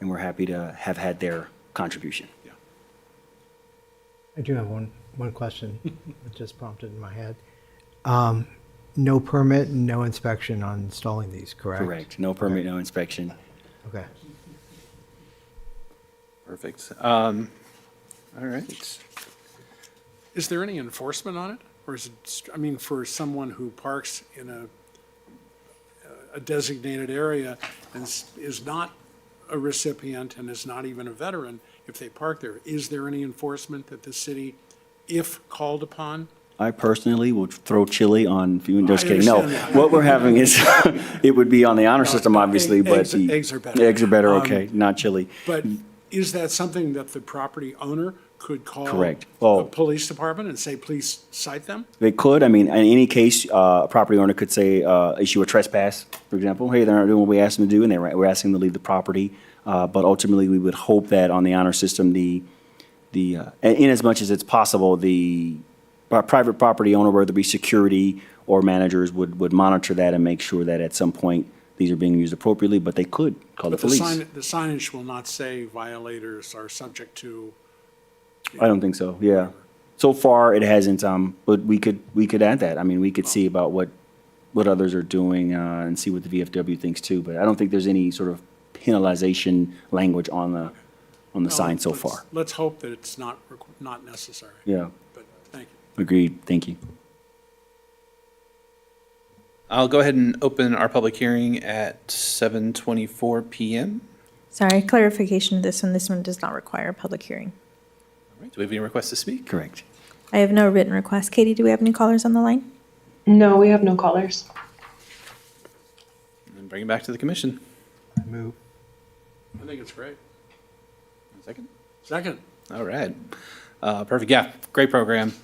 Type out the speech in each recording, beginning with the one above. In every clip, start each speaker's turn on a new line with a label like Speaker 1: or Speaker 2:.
Speaker 1: and we're happy to have had their contribution.
Speaker 2: I do have one, one question that just prompted in my head. Um, No permit, no inspection on installing these, correct?
Speaker 1: Correct. No permit, no inspection.
Speaker 2: Okay.
Speaker 3: Perfect. Um, All right.
Speaker 4: Is there any enforcement on it? Or is it, st- I mean, for someone who parks in a, a designated area and s- is not a recipient and is not even a veteran, if they park there, is there any enforcement that the city, if called upon?
Speaker 1: I personally will throw chili on, no, just
Speaker 4: I
Speaker 1: kidding, no.
Speaker 4: understand that.
Speaker 1: What we're having is, it would be on the honor system,
Speaker 4: egg-
Speaker 1: obviously, but
Speaker 4: eggs-
Speaker 1: the.
Speaker 4: eggs are better.
Speaker 1: Eggs are better,
Speaker 4: Um,
Speaker 1: okay, not chili.
Speaker 4: But is that something that the property owner could call?
Speaker 1: Correct. Oh.
Speaker 4: The police department and say, please cite them?
Speaker 1: They could, I mean, in any case, uh, a property owner could say, uh, issue a trespass, for example, hey, they're not doing what we asked them to do, and they're, we're asking them to leave the property. Uh, But ultimately, we would hope that on the honor system, the, the, uh, in in as much as it's possible, the pri- private property owner, whether it be security or managers, would, would monitor that and make sure that at some point, these are being used appropriately, but they could call the
Speaker 4: But the
Speaker 1: police.
Speaker 4: sign, the signage will not say violators are subject to.
Speaker 1: I don't think so, yeah. So far, it hasn't, um, but we could, we could add that. I mean, we could see about what, what others are doing, uh, and see what the VFW thinks too, but I don't think there's any sort of penalization language on the, on the sign so
Speaker 4: Let's-
Speaker 1: far.
Speaker 4: Let's hope that it's not, requ- not necessary.
Speaker 1: Yeah,
Speaker 4: But thank you.
Speaker 1: agreed, thank you.
Speaker 3: I'll go ahead and open our public hearing at 7:24 PM.
Speaker 5: Sorry, clarification of this one. This one does not require a public hearing.
Speaker 3: All right, Do we have any requests to speak?
Speaker 1: Correct.
Speaker 5: I have no written request. Katie, do we have any callers on the line?
Speaker 6: No, we have no callers.
Speaker 3: And bring it back to the commission.
Speaker 2: I Move.
Speaker 4: I think it's great.
Speaker 3: One second.
Speaker 4: Second,
Speaker 3: All right. Uh, Perfect, yeah, great program.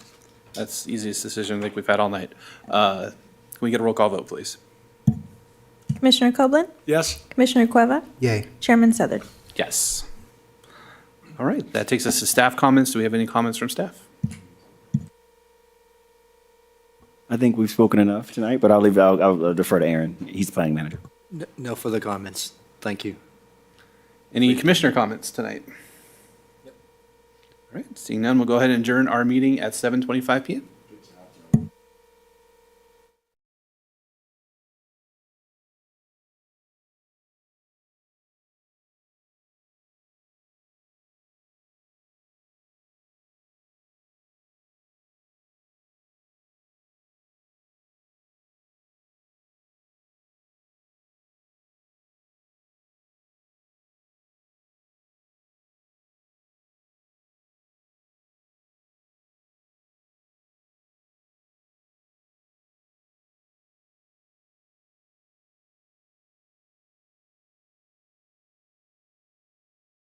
Speaker 3: That's the easiest decision I think we've had all night. Uh, Can we get a roll call vote, please?
Speaker 5: Commissioner Copeland,
Speaker 4: yes,
Speaker 5: Commissioner Cueva,
Speaker 2: Yay.
Speaker 5: Chairman Southard.
Speaker 3: Yes. All right, that takes us to staff comments. Do we have any comments from staff?
Speaker 1: I think we've spoken enough tonight, but I'll leave, I'll, I'll uh, defer to Aaron, he's planning manager.
Speaker 7: N- No further comments. Thank you.
Speaker 3: Any commissioner comments tonight? All right, seeing none, we'll go ahead and adjourn our meeting at 7:25 PM.